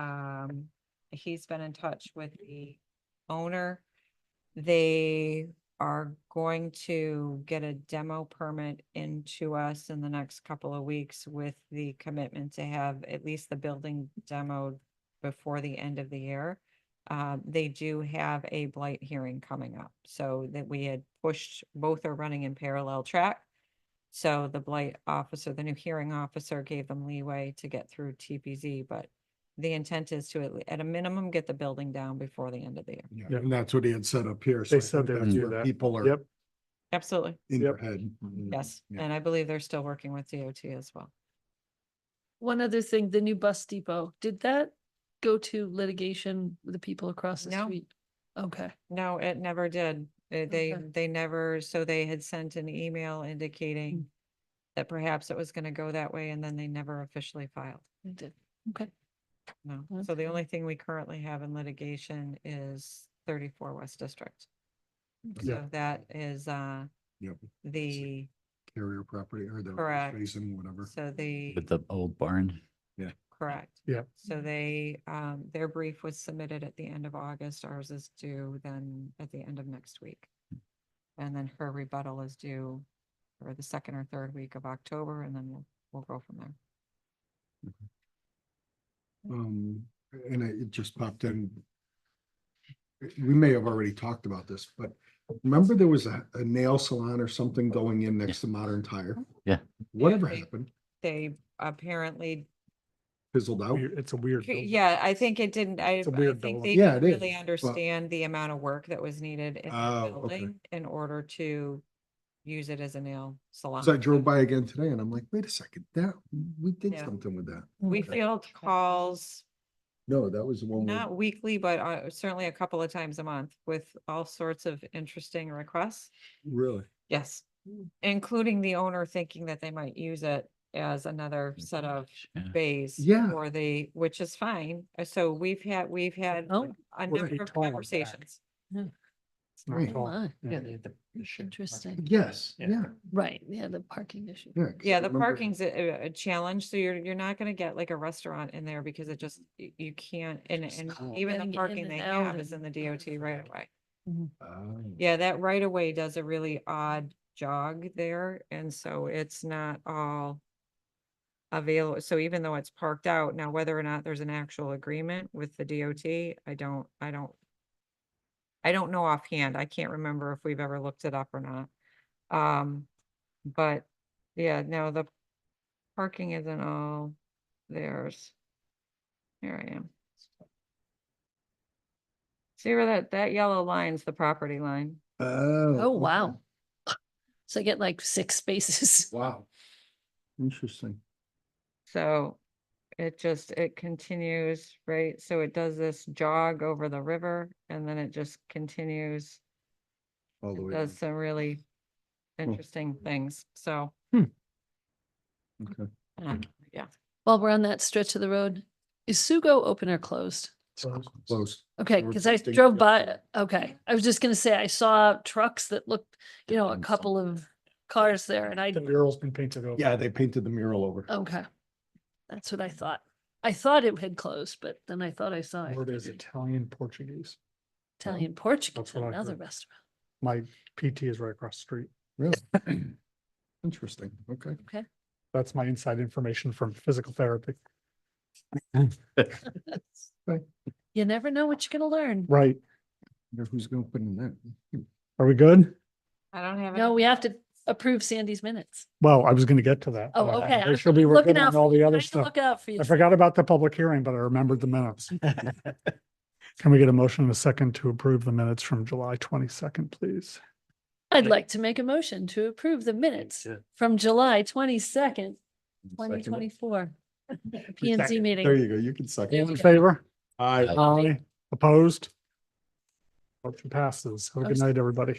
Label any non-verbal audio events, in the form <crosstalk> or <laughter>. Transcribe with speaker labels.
Speaker 1: um, he's been in touch with the owner. They are going to get a demo permit into us in the next couple of weeks with the commitment to have at least the building demoed before the end of the year. Uh, they do have a blight hearing coming up, so that we had pushed, both are running in parallel track. So the blight officer, the new hearing officer gave them leeway to get through TPZ, but the intent is to at, le- at a minimum, get the building down before the end of the year.
Speaker 2: Yeah,
Speaker 3: Yeah.
Speaker 2: and that's what he had set up here. so
Speaker 3: They
Speaker 2: I think
Speaker 3: said they would
Speaker 2: that's
Speaker 3: do
Speaker 2: where
Speaker 3: that.
Speaker 2: People are
Speaker 3: Yep,
Speaker 1: Absolutely,
Speaker 2: in their
Speaker 3: Yep.
Speaker 2: head.
Speaker 1: yes.
Speaker 2: Mm-hmm, Yeah.
Speaker 1: And I believe they're still working with DOT as well.
Speaker 4: One other thing, the new bus depot, did that go to litigation with the people across the
Speaker 1: No.
Speaker 4: street? Okay,
Speaker 1: No, it never did. They- They,
Speaker 4: Okay.
Speaker 1: they never, so they had sent an email indicating that perhaps it was gonna go that way and then they never officially filed.
Speaker 4: they did, okay.
Speaker 1: No. So the
Speaker 4: Okay.
Speaker 1: only thing we currently have in litigation is thirty-four West District.
Speaker 2: Yeah.
Speaker 1: So that is, uh,
Speaker 2: Yep.
Speaker 1: the,
Speaker 2: Carrier property or the
Speaker 1: Correct.
Speaker 2: basin, whatever.
Speaker 1: so the,
Speaker 5: With the old barn.
Speaker 1: correct.
Speaker 3: Yep.
Speaker 1: So they, um, their brief was submitted at the end of August, ours is due then at the end of next week. And then her rebuttal is due for the second or third week of October, and then we'll, we'll go from there.
Speaker 2: Um, and it it just popped in. We may have already talked about this, but remember there was a, a nail salon or something going in next to Modern Tire?
Speaker 5: Yeah.
Speaker 2: Whatever
Speaker 1: Yeah.
Speaker 2: happened,
Speaker 1: They apparently,
Speaker 2: fizzled out.
Speaker 3: weird- Oh, it's a weird. building.
Speaker 1: yeah, I think it didn't, I,
Speaker 3: It's a
Speaker 1: I
Speaker 3: weird
Speaker 1: think
Speaker 3: building.
Speaker 1: they
Speaker 2: Yeah,
Speaker 1: didn't
Speaker 2: it
Speaker 1: really
Speaker 2: is, but-
Speaker 1: understand the amount of work that was needed in
Speaker 2: Oh,
Speaker 1: the
Speaker 2: okay.
Speaker 1: building in order to use it as a nail salon.
Speaker 2: So I drove by again today and I'm like, wait a second, that, we did
Speaker 1: Yeah.
Speaker 2: something with that.
Speaker 4: Hmm.
Speaker 1: We
Speaker 2: Okay.
Speaker 1: field calls
Speaker 2: No, that was the one. we-
Speaker 1: Not weekly, but uh, certainly a couple of times a month with all sorts of interesting requests.
Speaker 2: Really?
Speaker 1: Yes,
Speaker 4: Mm.
Speaker 1: including the owner thinking that they might use it as another set of
Speaker 5: Yeah.
Speaker 1: bays.
Speaker 2: Yeah.
Speaker 1: For the, which is fine. Uh, So we've had, we've had a
Speaker 4: Oh.
Speaker 3: Well,
Speaker 1: number
Speaker 3: they
Speaker 1: of
Speaker 3: tall back.
Speaker 1: conversations.
Speaker 3: It's not
Speaker 2: Right.
Speaker 4: Oh,
Speaker 3: tall.
Speaker 4: my.
Speaker 3: Yeah.
Speaker 4: Interesting,
Speaker 2: Yes,
Speaker 3: Yeah.
Speaker 2: yeah.
Speaker 4: right, yeah, the parking issue.
Speaker 2: Yeah, 'cause I
Speaker 1: Yeah, the
Speaker 2: remember-
Speaker 1: parking's a, a- a challenge, so you're, you're not gonna get like a restaurant in there because it just, y- you can't, and,
Speaker 4: Just
Speaker 1: and
Speaker 4: can't.
Speaker 1: even
Speaker 4: Getting
Speaker 1: the
Speaker 4: in
Speaker 1: parking
Speaker 4: and
Speaker 1: they
Speaker 4: out
Speaker 1: have is in
Speaker 4: and-
Speaker 1: the DOT right away.
Speaker 2: Oh.
Speaker 1: Yeah, that right of way does a really odd jog there, and so it's not all available, so even though it's parked out, now whether or not there's an actual agreement with the DOT, I don't, I don't I don't know offhand, I can't remember if we've ever looked it up or not. Um, but, yeah, no, the parking isn't all theirs. Here I am. See where that, that yellow line's the property line?
Speaker 2: Oh.
Speaker 4: Oh,
Speaker 2: okay.
Speaker 4: wow. <laughs> So I get like six spaces. <laughs>
Speaker 2: Wow. Interesting.
Speaker 1: So it just, it continues, right? So it does this jog over the river and then it just continues.
Speaker 2: All the
Speaker 1: It
Speaker 2: way.
Speaker 1: does
Speaker 2: down.
Speaker 1: some
Speaker 2: Hmm.
Speaker 1: really interesting things, so.
Speaker 2: Okay.
Speaker 1: uh, Yeah,
Speaker 4: While we're on that stretch of the road, is Sugo open or closed?
Speaker 2: Close.
Speaker 4: Okay,
Speaker 2: Or
Speaker 4: because I
Speaker 2: something
Speaker 4: drove by,
Speaker 2: different.
Speaker 4: okay, I was just gonna say, I saw trucks that looked, you know, a
Speaker 5: And
Speaker 4: couple of cars there and I
Speaker 3: The mural's been painted over.
Speaker 2: Yeah, they painted the mural over.
Speaker 4: Okay. That's what I thought. I thought it had closed, but then I thought I saw it.
Speaker 3: Word is Italian Portuguese.
Speaker 4: Italian Portuguese,
Speaker 3: That's what I
Speaker 4: another
Speaker 3: heard.
Speaker 4: restaurant. <laughs>
Speaker 3: My PT is right across the street.
Speaker 2: <laughs> Really? Interesting. Okay.
Speaker 4: Okay.
Speaker 3: That's my inside information from physical therapy.
Speaker 4: You never know what you're gonna learn.
Speaker 3: Right,
Speaker 2: Wonder who's going to put in that?
Speaker 3: are we good?
Speaker 1: I don't have.
Speaker 4: No,
Speaker 1: any-
Speaker 4: we have to approve Sandy's minutes.
Speaker 3: Well, I was gonna get to that.
Speaker 4: Oh,
Speaker 3: but I-
Speaker 4: okay,
Speaker 3: I
Speaker 4: I'm
Speaker 3: should be working
Speaker 4: looking out
Speaker 3: on all the
Speaker 4: Trying
Speaker 3: other
Speaker 4: to
Speaker 3: stuff.
Speaker 4: Look out for you.
Speaker 3: I forgot about the public hearing, but I remembered
Speaker 4: <laughs>
Speaker 3: the minutes. Can we get a motion and a second to approve the minutes from July twenty-second, please?
Speaker 4: I'd like to make a motion to approve the minutes from July twenty-second, twenty twenty-four. P and Z
Speaker 2: There
Speaker 4: meeting.
Speaker 2: you go. You can second.
Speaker 3: All in
Speaker 4: Yeah.
Speaker 3: favor?
Speaker 2: Aye.
Speaker 3: Aye. Opposed? Motion passes. Have a good
Speaker 4: Abst-
Speaker 3: night, everybody.